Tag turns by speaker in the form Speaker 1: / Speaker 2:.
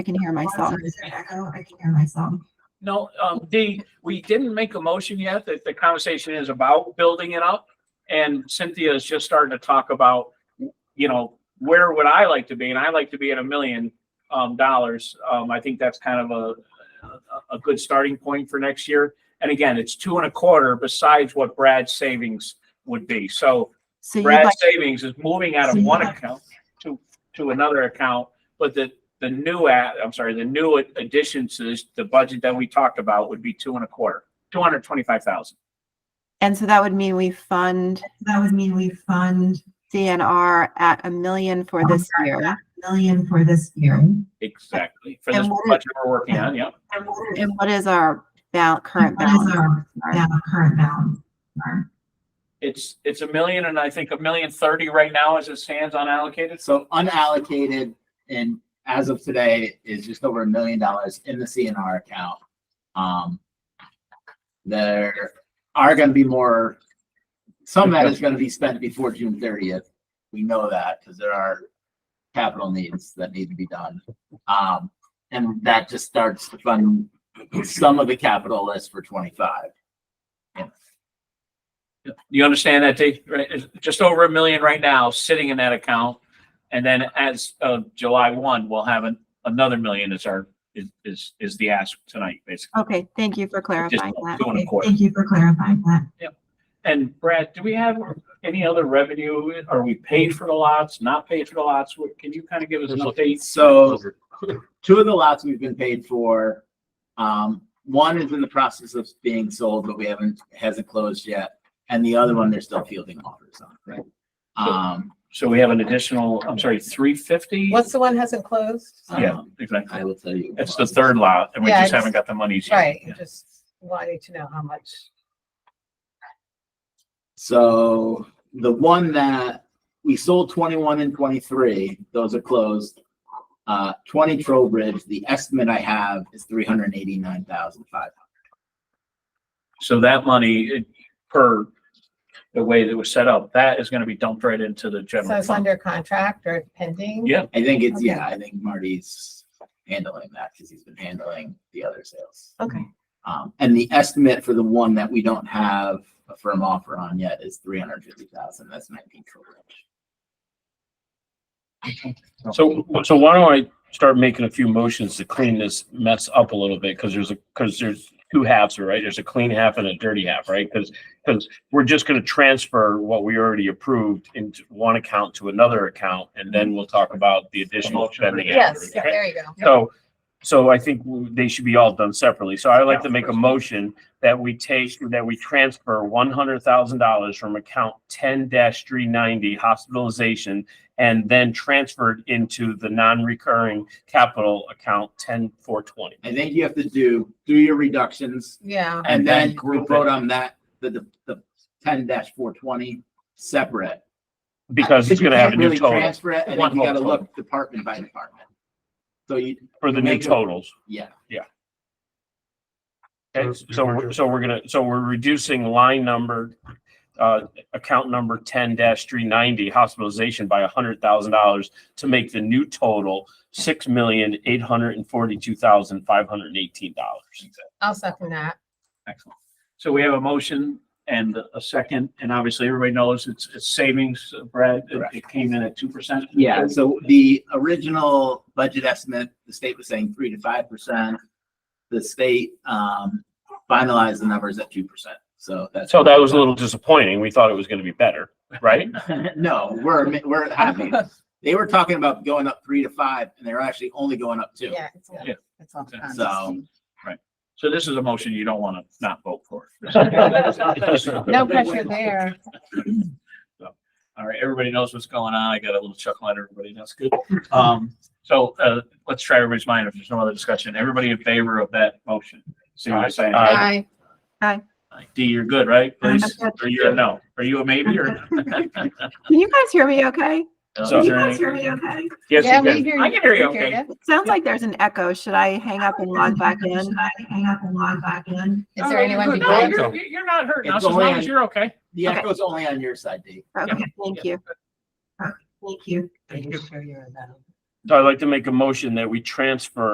Speaker 1: I can hear myself.
Speaker 2: Is there echo? I can hear myself.
Speaker 3: No, um, the, we didn't make a motion yet, that the conversation is about building it up. And Cynthia is just starting to talk about, you know, where would I like to be? And I like to be at a million, um, dollars. Um, I think that's kind of a, a, a good starting point for next year. And again, it's two and a quarter besides what Brad's savings would be. So
Speaker 1: So you'd like,
Speaker 3: Brad's savings is moving out
Speaker 2: So
Speaker 3: of
Speaker 2: you'd
Speaker 3: one
Speaker 2: like-
Speaker 3: account to, to another account. But the, the new at, I'm sorry, the new additions to this- the budget that we talked about would be two and a quarter, two hundred twenty-five thousand.
Speaker 1: and so that would mean we fund
Speaker 2: That would mean we fund
Speaker 1: DNR at a million for this year.
Speaker 2: million for this year. And
Speaker 3: Exactly. For this
Speaker 1: And what is-
Speaker 3: budget we're working on, yeah.
Speaker 2: what is
Speaker 1: And what is our bal- current
Speaker 2: what is
Speaker 1: balance?
Speaker 2: our
Speaker 1: Sorry.
Speaker 2: ba- current balance? Our-
Speaker 3: It's, it's a million and I think a million thirty right now as it stands unallocated.
Speaker 4: So unallocated and as of today is just over a million dollars in the CNR account. Um, there are gonna be more, some of that is gonna be spent before June thirtieth. We know that because there are capital needs that need to be done. Um, and that just starts to fund some of the capital list for twenty-five.
Speaker 3: You understand that, Dave? Right? It's just over a million right now, sitting in that account. And then as of July one, we'll have an, another million is our, is, is, is the ask tonight, basically.
Speaker 1: Okay, thank you for clarifying
Speaker 3: Just
Speaker 1: that.
Speaker 3: Two and a
Speaker 2: Okay,
Speaker 3: quarter.
Speaker 2: Thank you for clarifying that.
Speaker 3: And Brad, do we have any other revenue? Are we paid for the lots, not paid for the lots? What- Can you kind of give us an update?
Speaker 4: So two of the lots we've been paid for. Um, one is in the process of being sold, but we haven't, hasn't closed yet. And the other one, they're still fielding offers on. Right. Um,
Speaker 3: So we have an additional, I'm sorry, three fifty?
Speaker 5: What's the one hasn't closed?
Speaker 3: Yeah,
Speaker 4: um,
Speaker 3: exactly.
Speaker 4: I will tell you.
Speaker 3: It's the third lot and we
Speaker 5: Yeah,
Speaker 3: just
Speaker 5: I
Speaker 3: haven't got the monies yet.
Speaker 5: Right,
Speaker 3: Yeah.
Speaker 5: just wanting to know how much.
Speaker 4: So the one that we sold twenty-one and twenty-three, those are closed. Uh, twenty Trowbridge, the estimate I have is three hundred and eighty-nine thousand five.
Speaker 3: So that money it- per the way that it was set up, that is going to be dumped right into the
Speaker 5: So
Speaker 3: general
Speaker 5: it's
Speaker 3: fund.
Speaker 5: under contract or pending?
Speaker 3: Yeah.
Speaker 4: I think it's,
Speaker 5: Okay.
Speaker 4: yeah, I think Marty's handling that because he's been handling the other sales.
Speaker 5: Okay.
Speaker 4: Um, and the estimate for the one that we don't have a firm offer on yet is three hundred fifty thousand. That's nineteen Trowbridge.
Speaker 6: So, so why don't I start making a few motions to clean this mess up a little bit? Cause there's a, cause there's two halves, right? There's a clean half and a dirty half, right? Cause, cause we're just gonna transfer what we already approved into one account to another account and then we'll talk about the additional spending.
Speaker 5: Yes,
Speaker 6: after, okay?
Speaker 5: there you go.
Speaker 6: So, so I think w- they should be all done separately. So I would like to make a motion that we take, that we transfer one hundred thousand dollars from account ten three ninety hospitalization and then transferred into the non-recurring capital account ten four twenty.
Speaker 4: I think you have to do, do your reductions
Speaker 5: Yeah,
Speaker 4: and
Speaker 3: And
Speaker 4: then
Speaker 3: then
Speaker 4: we'll
Speaker 3: group
Speaker 4: vote on that, the, the, the ten four twenty separate.
Speaker 6: Because it's
Speaker 4: You
Speaker 6: gonna have a
Speaker 4: can't
Speaker 6: new
Speaker 4: really
Speaker 6: total
Speaker 4: Transfer it and
Speaker 6: One
Speaker 4: then you
Speaker 6: whole
Speaker 4: gotta
Speaker 6: total.
Speaker 4: look department by department. So you,
Speaker 6: for the new totals.
Speaker 4: yeah,
Speaker 6: Okay, so, we're- so we're gonna, so we're reducing line number, uh, account number ten three ninety hospitalization by hundred thousand dollars to make the new total six million, eight hundred and forty-two thousand, five hundred and eighteen dollars.
Speaker 5: I'll second that.
Speaker 3: Excellent. So we have a motion and a second, and obviously everybody knows it's, it's savings, uh, Brad, it- it came in at two percent.
Speaker 4: Yeah, so the original budget estimate, the state was saying three to five percent. The state um finalized the numbers at two percent, so that's.
Speaker 6: So that was a little disappointing. We thought it was gonna be better, right?
Speaker 4: No, we're, we're happy. They were talking about going up three to five and they're actually only going up two.
Speaker 5: Yeah. it's-
Speaker 3: Yeah.
Speaker 5: It's all
Speaker 3: So-
Speaker 5: constant.
Speaker 3: So this is a motion you don't want to not vote for.
Speaker 5: No pressure there.
Speaker 3: All right, everybody knows what's going on. I got a little chuckle at everybody. That's good. Um, so, uh, let's try everybody's mind if there's no other discussion. Everybody in favor of that motion? See what I'm saying?
Speaker 6: Aye.
Speaker 5: Aye.
Speaker 3: D, you're good, right? Please,
Speaker 1: good.
Speaker 3: or you're a no? Are you a maybe or?
Speaker 1: Can you guys hear me okay?
Speaker 6: So
Speaker 3: Is
Speaker 6: is
Speaker 1: Can you
Speaker 3: there
Speaker 1: guys
Speaker 3: any?
Speaker 1: hear me okay?
Speaker 6: Yes,
Speaker 5: Yeah,
Speaker 6: you
Speaker 5: we
Speaker 6: can.
Speaker 5: hear
Speaker 3: I can hear you
Speaker 5: We
Speaker 3: okay.
Speaker 1: It sounds like there's an echo. Should I hang up and log back in?
Speaker 2: Should I hang up and log back in?
Speaker 5: Is there anyone
Speaker 3: No,
Speaker 5: behind?
Speaker 3: Oh, you're, you're not hurting us
Speaker 4: It's
Speaker 3: as long
Speaker 4: only-
Speaker 3: as you're okay.
Speaker 4: The
Speaker 1: Okay.
Speaker 4: echo's only on your side, Dave.
Speaker 1: Okay, thank you.
Speaker 2: Thank you.
Speaker 3: Thank you.
Speaker 5: Sure you're in that.
Speaker 6: So I'd like to make a motion that we transfer